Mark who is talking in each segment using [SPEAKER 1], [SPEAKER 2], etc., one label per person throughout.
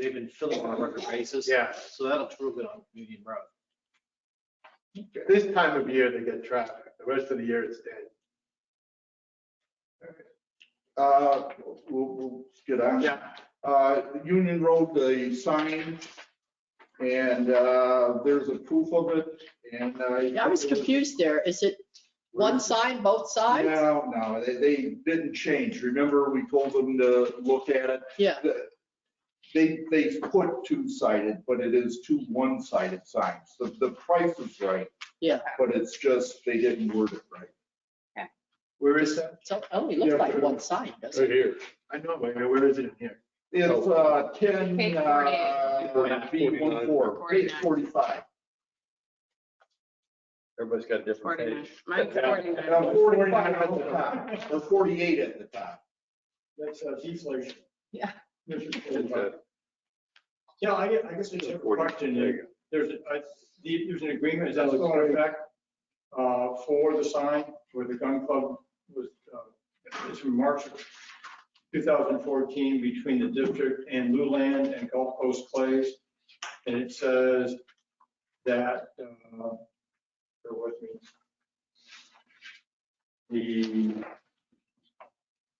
[SPEAKER 1] they've been filling on a record basis.
[SPEAKER 2] Yeah,
[SPEAKER 1] So that'll prove it on Union Road.
[SPEAKER 2] this time of year they get traffic. The rest of the year it's dead.
[SPEAKER 3] Uh, we'll, we'll get on.
[SPEAKER 2] Yeah.
[SPEAKER 3] Uh, Union Road, the sign, and, uh, there's a proof of it, and I.
[SPEAKER 4] I was confused there. Is it one sign, both sides?
[SPEAKER 3] No, no, they, they didn't change. Remember, we told them to look at it.
[SPEAKER 4] Yeah.
[SPEAKER 3] The- They, they put two-sided, but it is two one-sided signs. The, the price is right.
[SPEAKER 4] Yeah.
[SPEAKER 3] But it's just, they didn't word it right.
[SPEAKER 2] Where is that?
[SPEAKER 4] So oh, it only looks like one sign, doesn't it?
[SPEAKER 5] Right here.
[SPEAKER 2] I know, but where is it in here? Oh.
[SPEAKER 3] It's, uh, ten,
[SPEAKER 6] Page
[SPEAKER 3] uh, B one four, page forty-five.
[SPEAKER 5] Everybody's got a different
[SPEAKER 6] Forty-nine.
[SPEAKER 5] page.
[SPEAKER 6] Mine's
[SPEAKER 3] Uh,
[SPEAKER 6] forty-nine.
[SPEAKER 3] Forty-five at the top, or forty-eight at the top.
[SPEAKER 7] That's uh, deflation.
[SPEAKER 6] Yeah.
[SPEAKER 7] There's your
[SPEAKER 5] It's
[SPEAKER 7] forty-five.
[SPEAKER 5] a-
[SPEAKER 7] Yeah, I guess, I guess it's a
[SPEAKER 5] Forty. There
[SPEAKER 7] question.
[SPEAKER 5] you
[SPEAKER 7] There's, a- the- there's an agreement, is that still in effect? uh, For the sign where the gun club was, uh, it's from March of 2014 between the district and Luland and Gulf Coast Clays. And it says that, uh, bear with me. The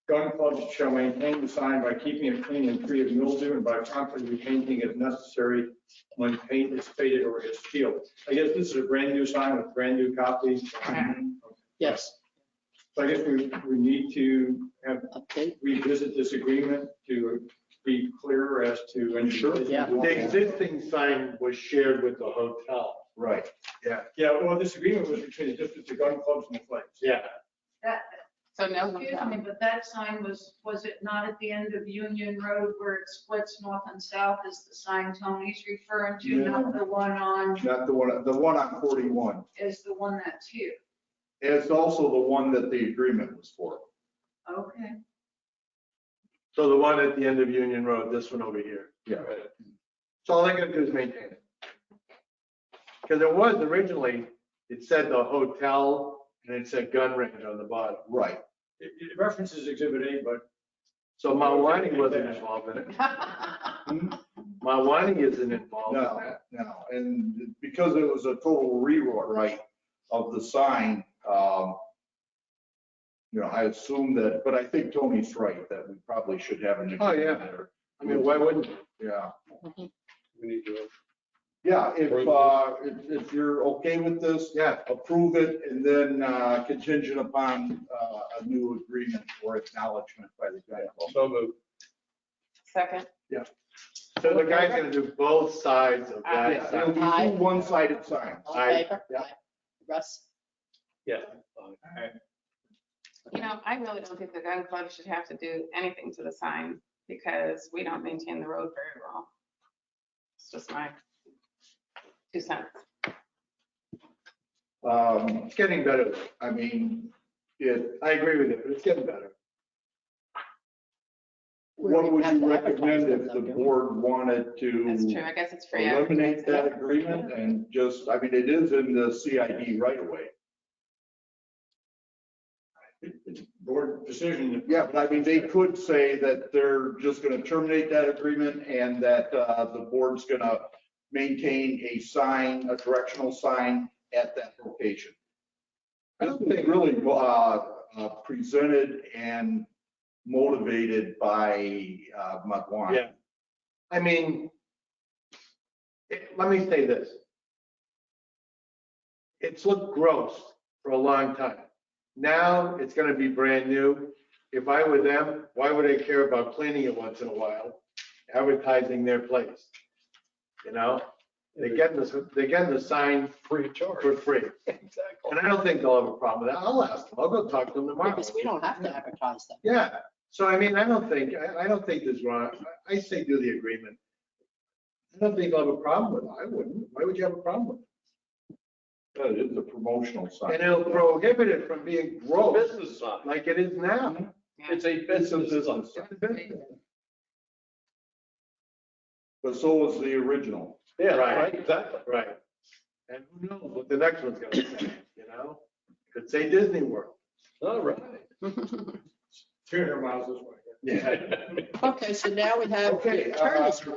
[SPEAKER 7] Gun clubs shall maintain the sign by keeping it clean and free of mildew and by promptly repainting if necessary when paint is faded or is peeled. I guess this is a brand new sign with brand new copies.
[SPEAKER 4] Yes,
[SPEAKER 7] So I guess we, we need to have,
[SPEAKER 4] okay.
[SPEAKER 7] revisit this agreement to be clearer as to when.
[SPEAKER 3] Sure.
[SPEAKER 4] Yeah.
[SPEAKER 2] The existing sign was shared with the hotel.
[SPEAKER 3] Right.
[SPEAKER 7] Yeah, well, this agreement was between the district, the gun clubs and the flags.
[SPEAKER 2] Yeah,
[SPEAKER 8] That,
[SPEAKER 6] So no
[SPEAKER 8] excuse me,
[SPEAKER 6] hotel.
[SPEAKER 8] but that sign was, was it not at the end of Union Road where it splits north and south is the sign Tony's referring to, not the one on,
[SPEAKER 3] Not the one, the one on forty-one.
[SPEAKER 8] is the one that's here.
[SPEAKER 3] It's also the one that the agreement was for.
[SPEAKER 8] Okay.
[SPEAKER 2] so the one at the end of Union Road, this one over here.
[SPEAKER 3] Yeah.
[SPEAKER 2] So all they gotta do is maintain it. Because it was originally, it said the hotel and it said gun range on the bottom.
[SPEAKER 3] Right.
[SPEAKER 7] It it references Exhibit A, but
[SPEAKER 2] So Mawani wasn't involved in it. Mawani isn't involved.
[SPEAKER 3] No, no, and because it was a total rewrite of the sign, um, you know, I assume that, but I think Tony's right, that we probably should have an.
[SPEAKER 2] Oh, yeah.
[SPEAKER 3] there.
[SPEAKER 2] I mean, why wouldn't?
[SPEAKER 3] Yeah,
[SPEAKER 4] Mm-hmm.
[SPEAKER 5] We need to.
[SPEAKER 3] yeah, if, uh, if, if you're okay with this,
[SPEAKER 2] Yeah,
[SPEAKER 3] approve it and then, uh, contingent upon, uh, a new agreement or acknowledgement by the guy.
[SPEAKER 5] So moved.
[SPEAKER 6] Second.
[SPEAKER 2] so the guy's gonna do both sides of that
[SPEAKER 6] Yeah.
[SPEAKER 3] It'll
[SPEAKER 2] sign.
[SPEAKER 3] be two one-sided signs.
[SPEAKER 4] All
[SPEAKER 2] Aye.
[SPEAKER 4] in favor?
[SPEAKER 3] Yeah.
[SPEAKER 4] Aye. Russ?
[SPEAKER 5] Yeah.
[SPEAKER 6] You know, I really don't think the gun club should have to do anything to the sign because we don't maintain the road very well. It's just my two cents.
[SPEAKER 3] Um,
[SPEAKER 2] It's getting better.
[SPEAKER 3] I mean,
[SPEAKER 2] It, I agree with you, but it's getting better.
[SPEAKER 4] We
[SPEAKER 3] what
[SPEAKER 4] don't
[SPEAKER 3] would
[SPEAKER 4] have
[SPEAKER 3] you
[SPEAKER 4] to advertise
[SPEAKER 3] recommend
[SPEAKER 4] them,
[SPEAKER 3] if the
[SPEAKER 4] though, do we?
[SPEAKER 3] board wanted
[SPEAKER 6] That's true.
[SPEAKER 3] to
[SPEAKER 6] I guess it's free.
[SPEAKER 3] Mm. eliminate that agreement and just, I mean, it is in the CID right away.
[SPEAKER 7] it's board decision.
[SPEAKER 3] Yeah, but I mean, they could say that they're just gonna terminate that agreement and that, uh, the board's gonna maintain a sign, a directional sign at that location. I don't think really, uh, uh, presented and motivated by, uh, Mudwine.
[SPEAKER 2] Yeah. I mean, it- let me say this. It's looked gross for a long time. Now it's gonna be brand new. If I were them, why would I care about cleaning it once in a while, advertising their place? You know, they're getting this, they're getting the sign
[SPEAKER 5] Free of charge.
[SPEAKER 2] for free.
[SPEAKER 5] Exactly.
[SPEAKER 2] And I don't think they'll have a problem with that. I'll ask them. I'll go talk to them tomorrow.
[SPEAKER 4] Because we don't have to advertise them.
[SPEAKER 2] Yeah, so I mean, I don't think, I, I don't think there's wrong, I I say do the agreement. I don't think I'll have a problem with it, I wouldn't, why would you have a problem with
[SPEAKER 3] Yeah, It is a promotional
[SPEAKER 2] it?
[SPEAKER 3] sign.
[SPEAKER 2] And it'll prohibit it from being gross,
[SPEAKER 5] Business sign.
[SPEAKER 2] like it is now.
[SPEAKER 5] It's a
[SPEAKER 3] Mm-hmm. It's a
[SPEAKER 5] business sign.
[SPEAKER 3] business sign, but so was the original.
[SPEAKER 5] Yeah,
[SPEAKER 2] Right.
[SPEAKER 5] right, exactly.
[SPEAKER 2] Right. And who knows what the next one's gonna say, you know? Could say Disney World.
[SPEAKER 5] All right.
[SPEAKER 7] Three hundred miles this way.
[SPEAKER 3] Yeah.
[SPEAKER 4] Okay, so now we have
[SPEAKER 3] Okay,
[SPEAKER 4] the attorney's
[SPEAKER 3] uh,